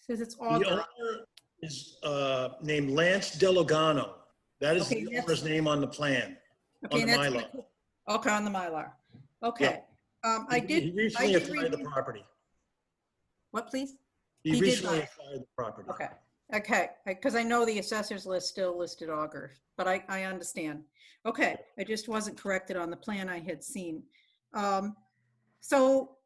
Says it's The author. owner is uh, named Lance Delogano. That is Okay, the that's- owner's name on the plan, on Okay, the and that's Mylar. what I- Okay, on the Mylar. Okay. Um, I He- did, He recently did acquired the review- property. what, please? He He did recently buy it. acquired the property. Okay, okay, because I know the assessor's list still listed Augur, but I, I understand. Okay, I just wasn't corrected on the plan I had seen. Um, So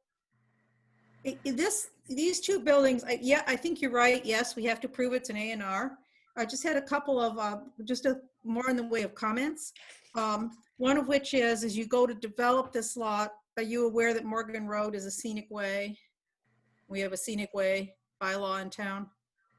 i- i- this, these two buildings, I- yeah, I think you're right, yes, we have to prove it's an A and R. I just had a couple of, uh, just a, more in the way of comments. Um, One of which is, as you go to develop this lot, are you aware that Morgan Road is a scenic way? We have a scenic way bylaw in town?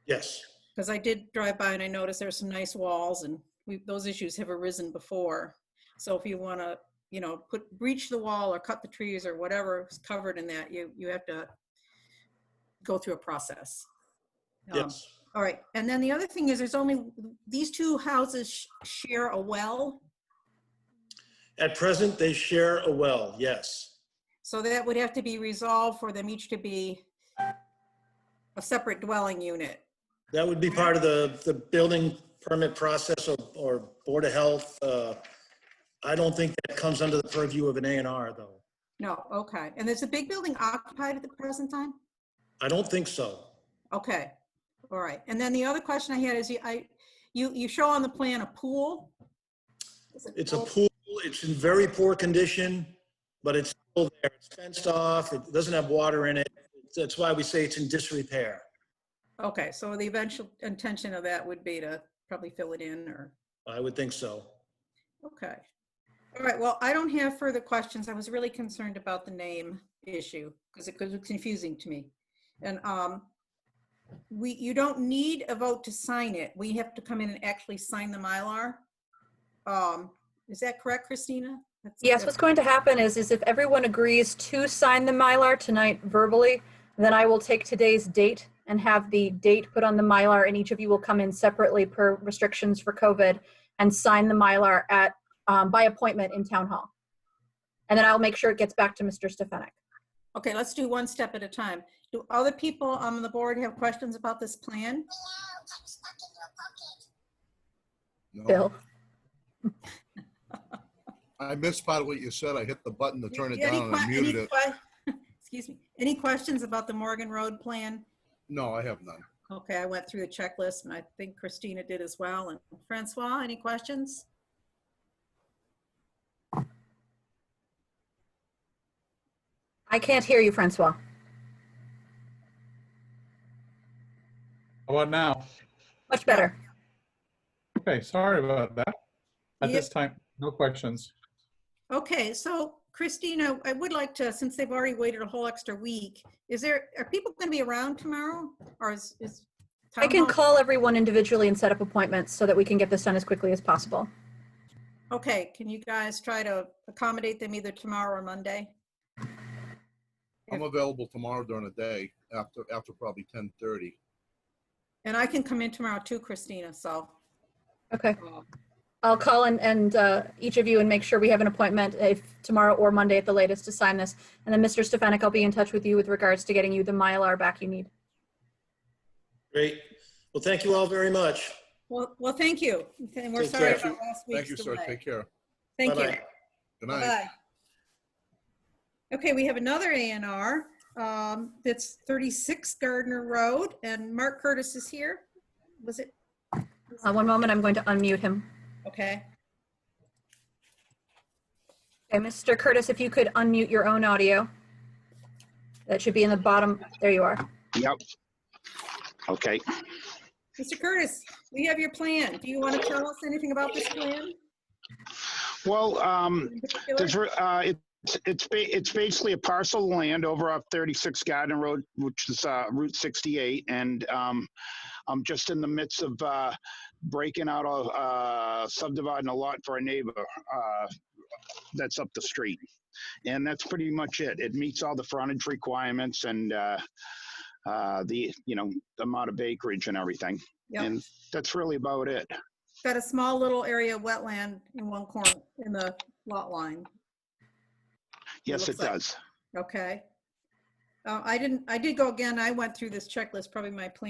Yes, Because I did drive by and I noticed there's some nice walls and we, those issues have arisen before. So if you want to, you know, put, breach the wall or cut the trees or whatever is covered in that, you, you have to go through a process. Um, yes. All right, and then the other thing is there's only, these two houses sh- share a well. At present, they share a well, yes. So that would have to be resolved for them each to be a separate dwelling unit. That would be part of the, the building permit process or, or Board of Health. uh, I don't think that comes under the purview of an A and R, though. No, okay. And is the big building occupied at the present time? I don't think so. Okay, all right. And then the other question I had is, you- I, you, you show on the plan a pool? Is it It's a pool, it's in very poor condition, but it's still there. It's fenced off, it doesn't have water in it. That's why we say it's in disrepair. Okay, so the eventual intention of that would be to probably fill it in or, I would think so. okay. All right, well, I don't have further questions. I was really concerned about the name issue because it was confusing to me. And, um, we, you don't need a vote to sign it. We have to come in and actually sign the Mylar. Um, is that correct, Christina? That's- Yes, what's going to happen is, is if everyone agrees to sign the Mylar tonight verbally, then I will take today's date and have the date put on the Mylar, and each of you will come in separately per restrictions for COVID and sign the Mylar at, um, by appointment in Town Hall. And then I'll make sure it gets back to Mr. Stefanik. Okay, let's do one step at a time. Do other people on the board have questions about this plan? Oh. Bill? I missed part of what you said. I hit the button to turn it Any down and I que- muted any it. que- Excuse me. Any questions about the Morgan Road plan? No, I have none. Okay, I went through the checklist and I think Christina did as well. And Francois, any questions? I can't hear you, Francois. How about now? Much better. Okay, sorry about that. At Yeah. this time, no questions. Okay, so Christina, I would like to, since they've already waited a whole extra week, is there, are people going to be around tomorrow? Or is, is? I can town hall- call everyone individually and set up appointments so that we can get this done as quickly as possible. Okay, can you guys try to accommodate them either tomorrow or Monday? I'm available tomorrow during the day after, after probably 10:30. And I can come in tomorrow too, Christina, so. Okay. uh, I'll call and, and uh, each of you and make sure we have an appointment if tomorrow or Monday at the latest to sign this. And then Mr. Stefanik, I'll be in touch with you with regards to getting you the Mylar back you need. Great. Well, thank you all very much. Well, well, thank you. And we're Take sorry care. about last Thank you, week's sir. delay. Take care. Thank you. Bye-bye. Good night. Bye-bye. Okay, we have another A and R. Um, that's 36 Gardner Road and Mark Curtis is here. Was it? Uh, one moment, I'm going to unmute him. Okay. Okay, Mr. Curtis, if you could unmute your own audio. That should be in the bottom. There you are. Yep. Okay, Mr. Curtis, we have your plan. Do you want to tell us anything about this plan? well, um, in particular? there's, uh, it's, it's, ba- it's basically a parcel of land over off 36 Garden Road, which is, uh, Route 68, and, um, I'm just in the midst of, uh, breaking out a, uh, subdividing a lot for a neighbor, uh, that's up the street. And that's pretty much it. It meets all the frontage requirements and, uh, uh, the, you know, amount of acreage and everything. Yep. And that's really about it. Got a small little area of wetland in one corner, in the lot line. Yes, looks it like- does. Okay. Uh, I didn't, I did go again, I went through this checklist, probably my plan